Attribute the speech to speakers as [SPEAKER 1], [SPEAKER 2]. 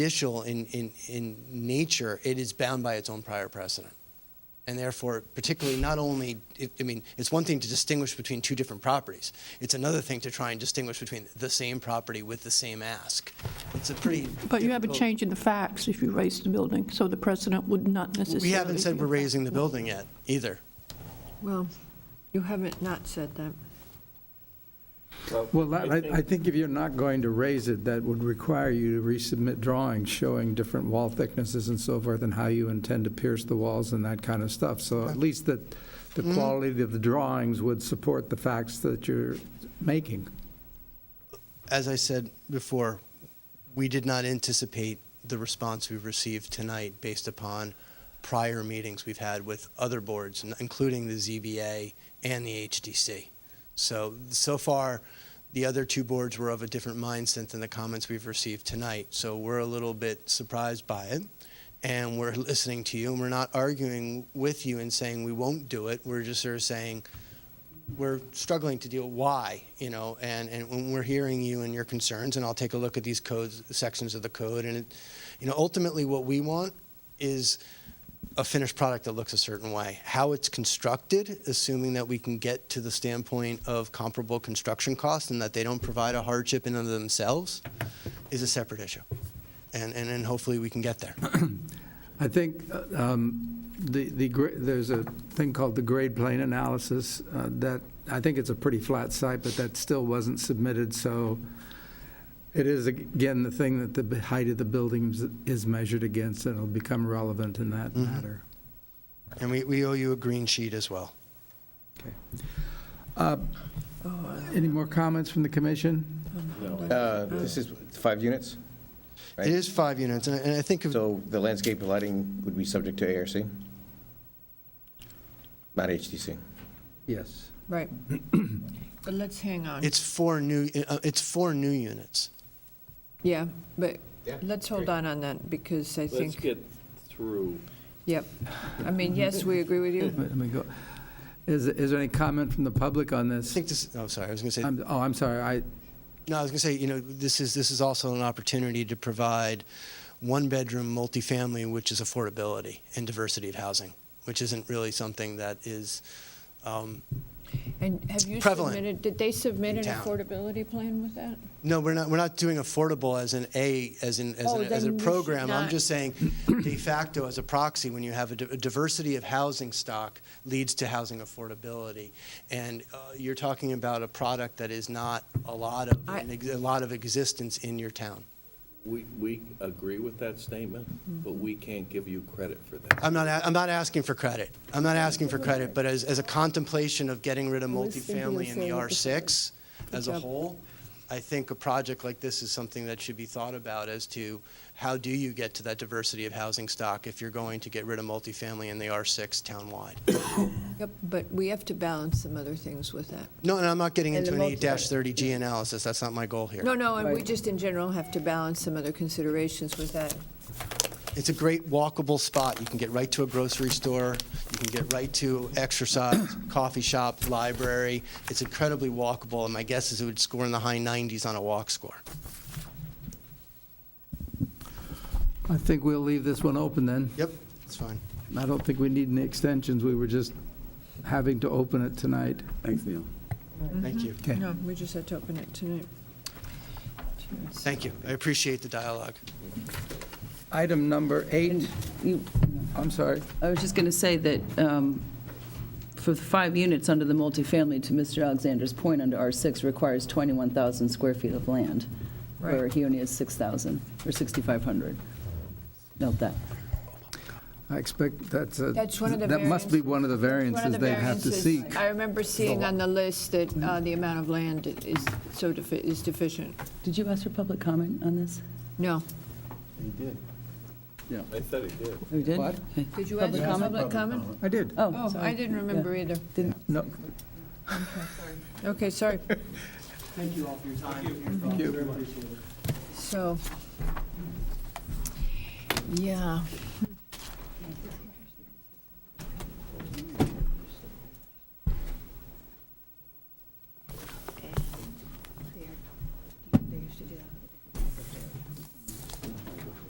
[SPEAKER 1] judicial in, in, in nature, it is bound by its own prior precedent. And therefore, particularly not only, it, I mean, it's one thing to distinguish between two different properties. It's another thing to try and distinguish between the same property with the same ask. It's a pretty.
[SPEAKER 2] But you have a
[SPEAKER 1] difficult-
[SPEAKER 2] change in the facts if you raise the building, so the precedent would not necessarily.
[SPEAKER 1] We haven't said
[SPEAKER 2] be
[SPEAKER 1] we're
[SPEAKER 2] affected.
[SPEAKER 1] raising the building yet either.
[SPEAKER 3] Well, you haven't not said that.
[SPEAKER 4] Well, that- I I think if you're not going to raise it, that would require you to resubmit drawings showing different wall thicknesses and so forth, and how you intend to pierce the walls and that kind of stuff. So at least that the quality of the drawings would support the facts that you're making.
[SPEAKER 1] As I said before, we did not anticipate the response we've received tonight based upon prior meetings we've had with other boards, n- including the ZBA and the HDC. So, so far, the other two boards were of a different mindset than the comments we've received tonight. So we're a little bit surprised by it, and we're listening to you, and we're not arguing with you and saying we won't do it. We're just sort of saying, we're struggling to deal why you know and and when we're hearing you and your concerns and i'll take a look at these codes sections of the code and it, you know ultimately what we want is a finished product that looks a certain way how it's constructed assuming that we can get to the standpoint of comparable construction costs and that they don't provide a hardship in and of themselves is a separate issue and and, and hopefully we can get there
[SPEAKER 4] I think uh, um, the, the gra- there's a thing called the grade plane analysis uh, that, I think it's a pretty flat site, but that still wasn't submitted, so it is, again, the thing that the b- height of the buildings is measured against, and it'll become relevant in that
[SPEAKER 1] Mm-hmm.
[SPEAKER 4] matter.
[SPEAKER 1] and we, we owe you a green sheet as well
[SPEAKER 4] Okay. Uh, Any more comments from the commission?
[SPEAKER 5] Uh, This is five units, Right.
[SPEAKER 1] it is five units and, I- and i think of
[SPEAKER 5] so the landscape lighting would be subject to ARC? Not HDC?
[SPEAKER 4] Yes.
[SPEAKER 3] Right. But let's hang on.
[SPEAKER 1] It's four new, uh, it's four new units.
[SPEAKER 3] Yeah, but
[SPEAKER 5] Yeah,
[SPEAKER 3] let's hold
[SPEAKER 5] great.
[SPEAKER 3] on on that because I
[SPEAKER 6] Let's
[SPEAKER 3] think,
[SPEAKER 6] get through.
[SPEAKER 3] yep. I mean, yes, we agree with you.
[SPEAKER 4] Let me go. Is, is there any comment from the public on
[SPEAKER 1] I
[SPEAKER 4] this?
[SPEAKER 1] think this, oh, sorry, I was going to say,
[SPEAKER 4] I'm- Oh, I'm sorry, I,
[SPEAKER 1] no, I was going to say, you know, this is, this is also an opportunity to provide one-bedroom multifamily, which is affordability and diversity of housing, which isn't really something that is, um,
[SPEAKER 3] And have you
[SPEAKER 1] Prevalent
[SPEAKER 3] submitted, did they submit
[SPEAKER 1] in
[SPEAKER 3] an
[SPEAKER 1] town.
[SPEAKER 3] affordability plan with that?
[SPEAKER 1] no, we're not, we're not doing affordable as an A, as an, as
[SPEAKER 3] Oh,
[SPEAKER 1] an, as a
[SPEAKER 3] then we should
[SPEAKER 1] program. I'm
[SPEAKER 3] not-
[SPEAKER 1] just saying de facto as a proxy, when you have a di- a diversity of housing stock leads to housing affordability. And uh, you're talking about a product that is not a lot of,
[SPEAKER 3] I-
[SPEAKER 1] an ex- a lot of existence in your town.
[SPEAKER 6] We, we agree with that statement,
[SPEAKER 4] Mm-hmm.
[SPEAKER 6] but we can't give you credit for that.
[SPEAKER 1] I'm not, a- I'm not asking for credit. I'm not asking for credit, but as, as a contemplation of getting rid of
[SPEAKER 3] I was thinking the
[SPEAKER 1] multifamily in the
[SPEAKER 3] same
[SPEAKER 1] R6 as a
[SPEAKER 3] job.
[SPEAKER 1] whole, I think a project like this is something that should be thought about as to how do you get to that diversity of housing stock if you're going to get rid of multifamily in the R6 townwide?
[SPEAKER 3] Yep, but we have to balance some other things with that.
[SPEAKER 1] No, and I'm not getting
[SPEAKER 3] And
[SPEAKER 1] into
[SPEAKER 3] the
[SPEAKER 1] an
[SPEAKER 3] multi-
[SPEAKER 1] 8-30G analysis. That's not my goal here.
[SPEAKER 3] No, no, and we just in general have to balance some other considerations with that.
[SPEAKER 1] It's a great walkable spot. You can get right to a grocery store, you can get right to exercise, coffee shop, library. It's incredibly walkable, and my guess is it would score in the high 90s on a walk score.
[SPEAKER 4] I think we'll leave this one open then.
[SPEAKER 1] Yep, that's fine.
[SPEAKER 4] I don't think we need any extensions, we were just having to open it tonight. Thanks, Neil.
[SPEAKER 1] Thank you.
[SPEAKER 4] Okay.
[SPEAKER 3] No, we just had to open it tonight.
[SPEAKER 1] Thank you. I appreciate the dialogue.
[SPEAKER 4] Item number eight,
[SPEAKER 7] You-
[SPEAKER 4] I'm sorry,
[SPEAKER 7] I was just going to say that um, for the five units under the multifamily, to Mr. Alexander's point, under R6 requires 21,000 square feet of land, where
[SPEAKER 3] Right.
[SPEAKER 7] he only has 6,000, or 6,500. Note that.
[SPEAKER 4] I expect that's a.
[SPEAKER 3] That's one of the
[SPEAKER 4] That must be one of the
[SPEAKER 3] One of
[SPEAKER 4] variances
[SPEAKER 3] the
[SPEAKER 4] they'd have to
[SPEAKER 3] variances
[SPEAKER 4] seek.
[SPEAKER 3] I remember seeing on the list that uh, the amount of land is so defi- is deficient.
[SPEAKER 7] Did you ask for public comment on this?
[SPEAKER 3] No.
[SPEAKER 6] I thought he did.
[SPEAKER 7] Oh, you did?
[SPEAKER 4] What?
[SPEAKER 7] Okay.
[SPEAKER 3] Did you ask
[SPEAKER 7] Public
[SPEAKER 3] for
[SPEAKER 7] comment?
[SPEAKER 3] public comment?
[SPEAKER 4] I did.
[SPEAKER 7] Oh,
[SPEAKER 3] Oh, I
[SPEAKER 7] sorry.
[SPEAKER 3] didn't remember either.
[SPEAKER 4] No,
[SPEAKER 3] Okay, sorry.
[SPEAKER 1] Thank you all for your time.
[SPEAKER 4] you.
[SPEAKER 3] So, yeah,